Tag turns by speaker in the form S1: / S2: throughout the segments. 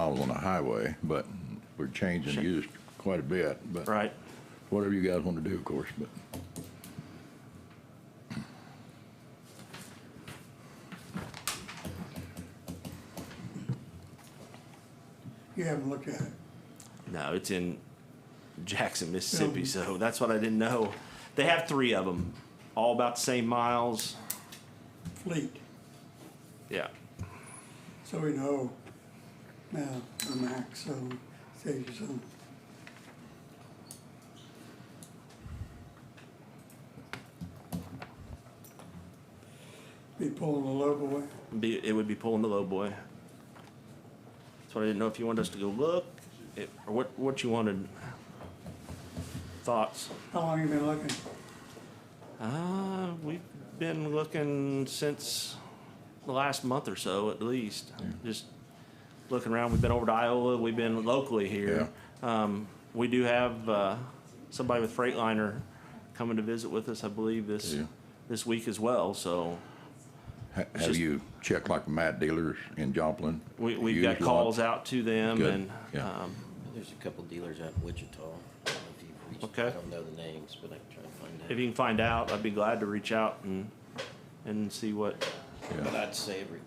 S1: miles on the highway, but we're changing
S2: Sure.
S1: used quite a bit, but.
S2: Right.
S1: Whatever you guys want to do, of course, but.
S3: You haven't looked at it.
S2: No, it's in Jackson, Mississippi. So that's what I didn't know. They have three of them, all about the same miles.
S3: Fleet,
S2: Yeah.
S3: so we know now the max, so save you some. Be pulling the local way.
S2: Be, it would be pulling the low boy. So I didn't know if you wanted us to go look, it, or what what you wanted. Thoughts?
S3: How long you been looking?
S2: Uh, we've been looking since the last month or so, at least. Just looking around. We've been over to Iowa. We've been locally here. Um, we do have uh, somebody with Freightliner coming to visit with us, I believe, this
S1: Yeah.
S2: this week as well. So
S1: Ha- Have
S2: just-
S1: you checked like the mat dealers in Joplin?
S2: we, we've
S1: Used
S2: got
S1: lot?
S2: calls out to them,
S1: Good.
S2: and
S1: Yeah.
S2: um,
S4: There's a couple dealers out in Wichita. I don't know if you've reached-
S2: Okay.
S4: I don't know the names, but I can try and find out.
S2: if you can find out, I'd be glad to reach out and and see what
S4: But
S1: Yeah.
S4: I'd say every,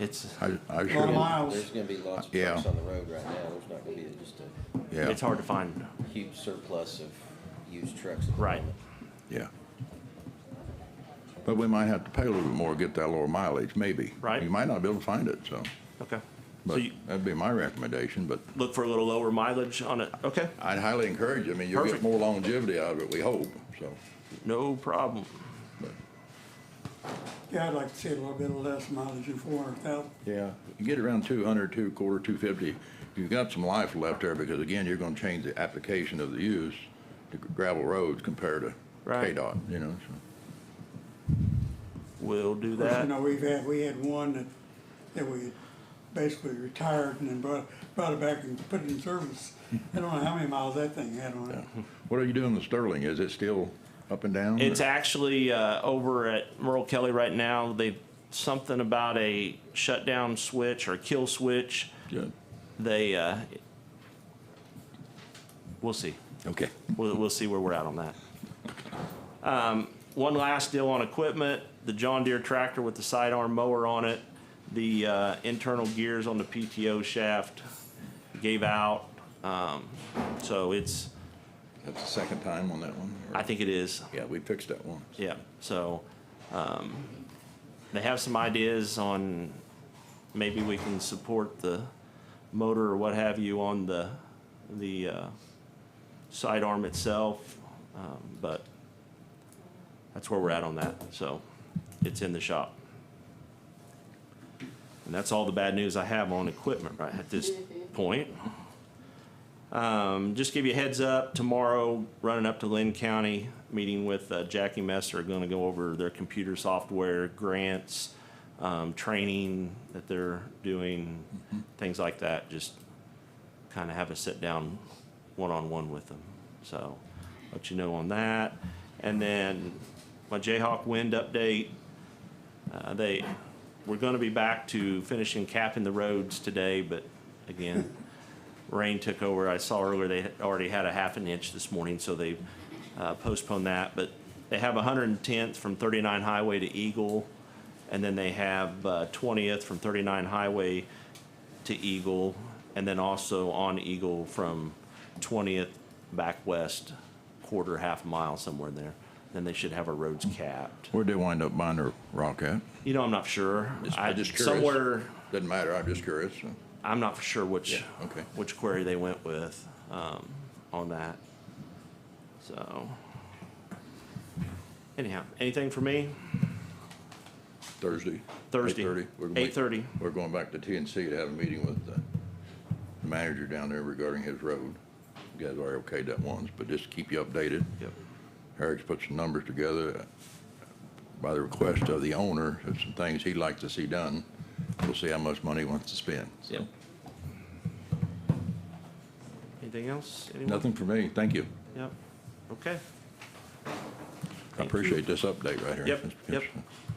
S2: it's.
S1: I, I
S3: Lot of
S1: sure,
S3: miles.
S4: there's gonna be lots of
S1: Yeah.
S4: trucks on the road right now. There's not gonna be just a
S1: yeah,
S2: It's hard to find.
S4: huge surplus of used trucks at the
S2: Right.
S4: moment.
S1: yeah. But we might have to pay a little bit more, to get that lower mileage, maybe.
S2: Right.
S1: You might not be able to find it, so,
S2: Okay. so
S1: but
S2: you
S1: that'd be my recommendation, but
S2: look for a little lower mileage on it. Okay.
S1: I'd highly encourage, it. I mean, you'll get
S2: Perfect.
S1: more longevity out of it, we hope, so.
S2: No problem.
S3: Yeah, I'd like to see a little bit less mileage than four hundred thousand.
S1: Yeah, you get around two hundred, two quarter, two fifty, you've got some life left there, because again, you're gonna change the application of the use to gravel roads compared to
S2: Right.
S1: KDOT, you know, so.
S2: We'll do
S3: Of course,
S2: that.
S3: you know, we've had, we had one that, that we basically retired and then brought, brought it back and put it in service. I don't know how many miles that thing had on it.
S1: What are you doing with Sterling? Is it still up and down?
S2: It's
S1: or-
S2: actually uh, over at Merle Kelly right now. They've something about a shutdown switch or kill switch.
S1: Good.
S2: They uh, we'll see.
S1: Okay.
S2: We'll, we'll see where we're at on that. Um, one last deal on equipment: the John Deere tractor with the sidearm mower on it, the uh, internal gears on the PTO shaft gave out. Um, so it's
S1: That's the second time on that one. or-
S2: I think it is.
S1: Yeah, we fixed that one.
S2: Yeah, so, um, they have some ideas on, maybe we can support the motor or what have you on the, the, uh, sidearm itself, um, but that's where we're at on that, so, it's in the shop. And that's all the bad news I have on equipment right at this point. Um, just give you a heads up, tomorrow, running up to Lynn County, meeting with uh, Jackie Messer, gonna go over their computer software grants, um, training that they're doing, things like that, just kinda have a sit-down, one-on-one with them, so, let you know on that. And then, my Jayhawk Wind update, uh, they, we're gonna be back to finishing capping the roads today, but again, rain took over. I saw earlier they had already had a half an inch this morning, so they uh, postponed that. But they have 110th from 39 Highway to Eagle, and then they have uh, 20th from 39 Highway to Eagle, and then also on Eagle from 20th back west, quarter, half mile somewhere in there. Then they should have our roads capped.
S1: Where'd they wind up buying their rock at?
S2: You know, I'm not sure.
S1: Just-
S2: I
S1: I'm just curious.
S2: somewhere.
S1: Doesn't matter, I'm just curious. so.
S2: I'm not for sure which
S1: Yeah, okay.
S2: which query they went with um, on that. So anyhow, anything for me?
S1: Thursday?
S2: Thursday,
S1: 8:30, we're gonna make-
S2: 8:30.
S1: We're going back to TNC to have a meeting with the manager down there regarding his road. You guys already okayed that once, but just to keep you updated.
S2: Yep.
S1: Eric's put some numbers together by the request of the owner, of some things he'd like to see done. We'll see how much money he wants to spend. so.
S2: Yep. Anything else? Anyone?
S1: Nothing for me, thank you.
S2: Yep. Okay.
S1: I
S2: Thank you.
S1: appreciate this update right here.
S2: Yep,
S1: It's-
S2: yep.
S1: it's-